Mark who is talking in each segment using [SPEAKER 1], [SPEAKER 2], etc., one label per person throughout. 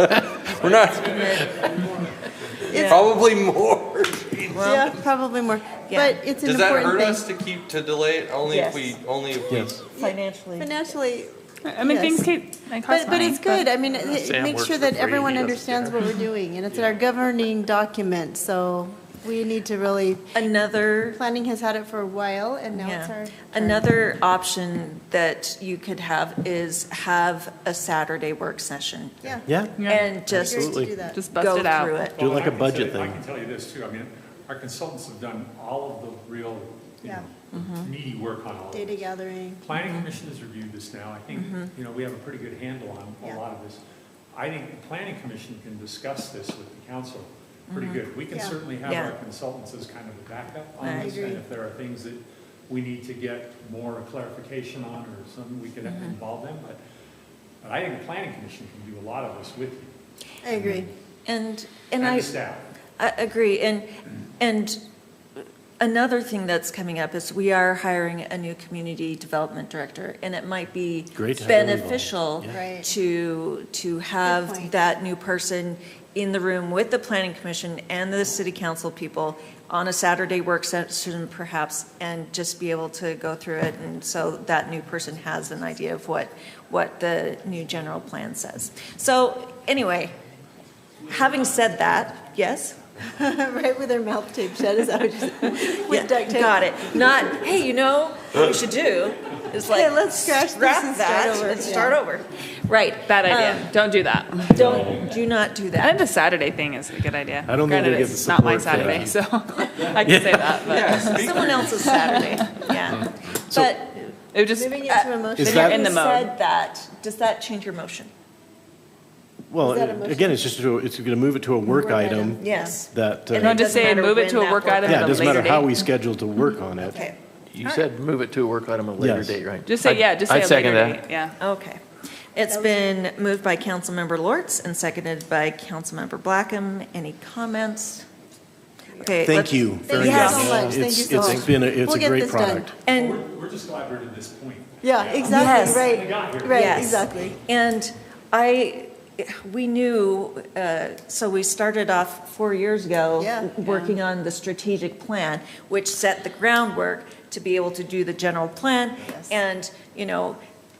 [SPEAKER 1] We're not,
[SPEAKER 2] It's-
[SPEAKER 1] probably more.
[SPEAKER 2] Yeah, probably more,
[SPEAKER 3] Yeah.
[SPEAKER 2] but it's an
[SPEAKER 1] Does that hurt
[SPEAKER 2] important
[SPEAKER 1] us
[SPEAKER 2] thing.
[SPEAKER 1] to keep, to delay it? Only if we,
[SPEAKER 3] Yes.
[SPEAKER 1] only if we.
[SPEAKER 3] financially.
[SPEAKER 2] Financially,
[SPEAKER 4] I mean,
[SPEAKER 2] Yes.
[SPEAKER 4] things keep, they cost
[SPEAKER 2] but, but
[SPEAKER 4] money,
[SPEAKER 2] it's good, I mean, it- it
[SPEAKER 5] Sam
[SPEAKER 2] makes
[SPEAKER 5] works
[SPEAKER 2] sure
[SPEAKER 5] for
[SPEAKER 2] that
[SPEAKER 5] free,
[SPEAKER 2] everyone
[SPEAKER 5] he doesn't
[SPEAKER 2] understands what we're doing, and it's in our governing document, so we need to really,
[SPEAKER 3] Another
[SPEAKER 2] planning has had it for a while, and now it's
[SPEAKER 3] Yeah.
[SPEAKER 2] our.
[SPEAKER 3] Another option that you could have is have a Saturday work session
[SPEAKER 2] Yeah.
[SPEAKER 5] Yeah,
[SPEAKER 4] Yeah,
[SPEAKER 3] and just
[SPEAKER 2] Great to
[SPEAKER 5] Absolutely.
[SPEAKER 2] do that.
[SPEAKER 4] just bust
[SPEAKER 3] go
[SPEAKER 4] it out.
[SPEAKER 3] through it.
[SPEAKER 5] do
[SPEAKER 6] Well,
[SPEAKER 5] like
[SPEAKER 6] I
[SPEAKER 5] a
[SPEAKER 6] can tell you-
[SPEAKER 5] budget
[SPEAKER 6] I
[SPEAKER 5] thing.
[SPEAKER 6] can tell you this too, I mean, our consultants have done all of the real, you
[SPEAKER 2] Yeah.
[SPEAKER 6] know, meaty work on all of
[SPEAKER 2] Data
[SPEAKER 6] this.
[SPEAKER 2] gathering,
[SPEAKER 6] Planning Commission has reviewed this now, I think, you know, we have a pretty good handle on
[SPEAKER 2] Yeah.
[SPEAKER 6] a lot of this. I think the Planning Commission can discuss this with the council pretty good. We can
[SPEAKER 2] Yeah.
[SPEAKER 6] certainly have
[SPEAKER 3] Yeah.
[SPEAKER 6] our consultants as kind of a backup on
[SPEAKER 3] I
[SPEAKER 6] this, and
[SPEAKER 2] agree.
[SPEAKER 6] if there are things that we need to get more clarification on or something, we could involve them, but, but I think the Planning Commission can do a lot of this with you
[SPEAKER 2] I agree.
[SPEAKER 3] And, and
[SPEAKER 6] and
[SPEAKER 3] I,
[SPEAKER 6] the staff.
[SPEAKER 3] I agree. And, and another thing that's coming up is we are hiring a new community development director, and it might be
[SPEAKER 5] Great to have them involved,
[SPEAKER 3] beneficial
[SPEAKER 2] yeah. Right.
[SPEAKER 3] to, to
[SPEAKER 2] Good
[SPEAKER 3] have
[SPEAKER 2] point.
[SPEAKER 3] that new person in the room with the planning commission and the city council people on a Saturday work session perhaps, and just be able to go through it. And so that new person has an idea of what, what the new general plan says. So anyway, having said that, yes?
[SPEAKER 2] Right with their mouth tape shut, is that what you said?
[SPEAKER 3] Yeah,
[SPEAKER 2] With duct tape.
[SPEAKER 3] Got it. Not, hey, you know, what we should do is like,
[SPEAKER 2] Hey, let's scratch this
[SPEAKER 3] scrap
[SPEAKER 2] and start
[SPEAKER 3] that
[SPEAKER 2] over.
[SPEAKER 3] and start
[SPEAKER 2] Yeah.
[SPEAKER 3] over. Right.
[SPEAKER 4] Bad
[SPEAKER 3] Um,
[SPEAKER 4] idea, don't do that.
[SPEAKER 3] Don't, do not do
[SPEAKER 4] I think
[SPEAKER 3] that.
[SPEAKER 4] the Saturday thing is a good idea.
[SPEAKER 5] I don't think
[SPEAKER 4] Granted,
[SPEAKER 5] they get the
[SPEAKER 4] it's not my
[SPEAKER 5] support for
[SPEAKER 4] Saturday,
[SPEAKER 5] that.
[SPEAKER 4] so I can say that, but
[SPEAKER 3] Someone else's Saturday, yeah. But
[SPEAKER 4] it would just,
[SPEAKER 2] Moving it to a motion.
[SPEAKER 5] Mm-hmm. Is
[SPEAKER 3] when
[SPEAKER 5] that-
[SPEAKER 3] you
[SPEAKER 4] in the mode.
[SPEAKER 3] said that, does that change your motion?
[SPEAKER 5] Well,
[SPEAKER 2] Is that a motion?
[SPEAKER 5] again, it's just, to- it's going to move it to a work
[SPEAKER 2] Work item.
[SPEAKER 5] item
[SPEAKER 3] Yes.
[SPEAKER 5] that,
[SPEAKER 3] And
[SPEAKER 5] uh,
[SPEAKER 4] no,
[SPEAKER 3] it
[SPEAKER 4] just
[SPEAKER 3] doesn't
[SPEAKER 4] say
[SPEAKER 3] matter
[SPEAKER 4] move it
[SPEAKER 3] when
[SPEAKER 4] to a
[SPEAKER 3] that
[SPEAKER 4] work
[SPEAKER 3] work-
[SPEAKER 4] item
[SPEAKER 5] yeah,
[SPEAKER 4] at
[SPEAKER 5] it
[SPEAKER 4] a
[SPEAKER 5] doesn't
[SPEAKER 4] later
[SPEAKER 5] matter how
[SPEAKER 4] date.
[SPEAKER 5] we schedule to work on it.
[SPEAKER 3] Okay,
[SPEAKER 5] You said move it to a work item at a
[SPEAKER 7] later date, right?
[SPEAKER 4] Just say, yeah, just
[SPEAKER 7] I-
[SPEAKER 4] say
[SPEAKER 7] I'd
[SPEAKER 4] a
[SPEAKER 7] second
[SPEAKER 4] later
[SPEAKER 7] that.
[SPEAKER 4] date, yeah.
[SPEAKER 3] okay. It's been moved by Councilmember Lortz and seconded by Councilmember Blackham. Any comments? Okay.
[SPEAKER 5] Thank
[SPEAKER 3] let's-
[SPEAKER 5] you
[SPEAKER 2] Thank
[SPEAKER 5] very
[SPEAKER 2] you
[SPEAKER 3] Yes.
[SPEAKER 5] much.
[SPEAKER 2] so much, thank you
[SPEAKER 5] It's-
[SPEAKER 2] so much.
[SPEAKER 5] It's been, a- it's
[SPEAKER 2] We'll
[SPEAKER 5] a
[SPEAKER 2] get
[SPEAKER 5] great
[SPEAKER 2] this done.
[SPEAKER 5] product.
[SPEAKER 3] And
[SPEAKER 6] We're, we're just glad we're at this point.
[SPEAKER 2] Yeah, exactly,
[SPEAKER 3] Yes.
[SPEAKER 6] We
[SPEAKER 2] right,
[SPEAKER 6] got here.
[SPEAKER 2] right,
[SPEAKER 3] Yes.
[SPEAKER 2] exactly.
[SPEAKER 3] And I, we knew, uh, so we started off four years ago.
[SPEAKER 2] Yeah.
[SPEAKER 3] Working on the strategic plan, which set the groundwork to be able to do the general plan. And, you know,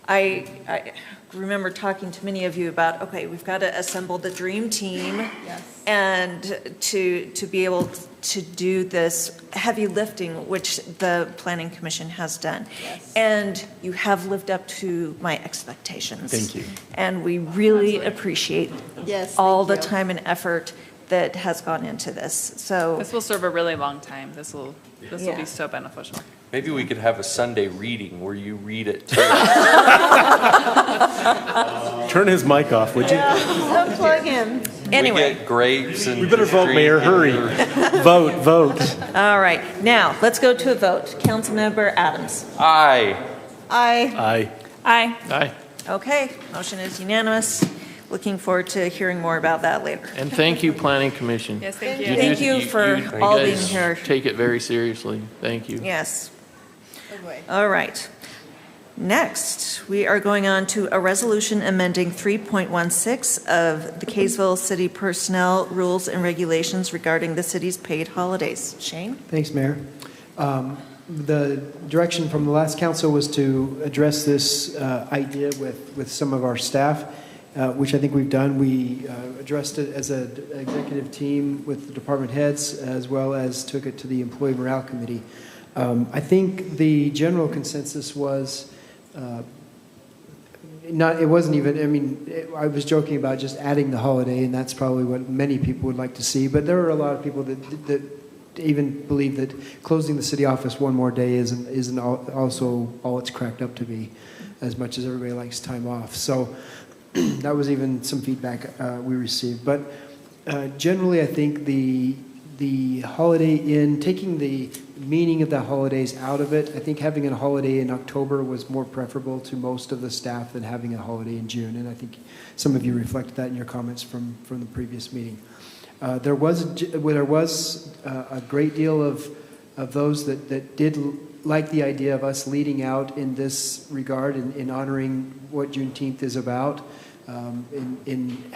[SPEAKER 3] I, I remember talking to many of you about, okay, we've got to assemble the dream team.
[SPEAKER 2] Yes.
[SPEAKER 3] And to, to be able to do this heavy lifting, which the planning commission has done. And you have lived up to my expectations.
[SPEAKER 5] Thank you.
[SPEAKER 3] And we really appreciate
[SPEAKER 2] Yes,
[SPEAKER 3] all the
[SPEAKER 2] thank you.
[SPEAKER 3] time and effort that has gone into this. So
[SPEAKER 4] This will serve a really long time, this will, this will
[SPEAKER 3] Yeah.
[SPEAKER 4] be so beneficial.
[SPEAKER 1] Maybe we could have a Sunday reading where you read it too.
[SPEAKER 5] Turn his mic off, would you?
[SPEAKER 2] Unplug him.
[SPEAKER 1] We
[SPEAKER 3] anyway,
[SPEAKER 1] get grapes and.
[SPEAKER 5] We better vote,
[SPEAKER 1] drink
[SPEAKER 5] Mayor,
[SPEAKER 1] and-
[SPEAKER 5] hurry. Vote, vote.
[SPEAKER 3] all right, now, let's go to a vote. Councilmember Adams.
[SPEAKER 1] Aye.
[SPEAKER 3] Aye.
[SPEAKER 5] Aye.
[SPEAKER 4] Aye.
[SPEAKER 7] Aye.
[SPEAKER 3] Okay, motion is unanimous. Looking forward to hearing more about that later.
[SPEAKER 7] And thank you, Planning Commission.
[SPEAKER 4] Yes, thank you.
[SPEAKER 7] do-
[SPEAKER 3] Thank you for
[SPEAKER 7] you
[SPEAKER 3] all being
[SPEAKER 7] guys
[SPEAKER 3] here.
[SPEAKER 7] Take it very seriously. Thank you.
[SPEAKER 3] Yes,
[SPEAKER 2] Oh, boy.
[SPEAKER 3] all right. Next, we are going on to a resolution amending 3.16 of the Kaysville City Personnel Rules and Regulations regarding the city's paid holidays. Shane?
[SPEAKER 8] Thanks, Mayor. Um, The direction from the last council was to address this uh, idea with, with some of our staff, uh, which I think we've done. We uh, addressed it as an executive team with the department heads, as well as took it to the Employee Morale Committee. Um, I think the general consensus was uh, not, it wasn't even, I mean, it, I was joking about just adding the holiday, and that's probably what many people would like to see. But there are a lot of people that, that even believe that closing the city office one more day isn't, isn't al- also all it's cracked up to be, as much as everybody likes time off. So that was even some feedback uh, we received. But uh, generally, I think the, the holiday in, taking the meaning of the holidays out of it, I think having a holiday in October was more preferable to most of the staff than having a holiday in June. And I think some of you reflected that in your comments from, from the previous meeting. Uh, There was, a g- well, there was uh, a great deal of, of those that, that did l- like the idea of us leading out in this regard and in honoring what Juneteenth is about, um, in, in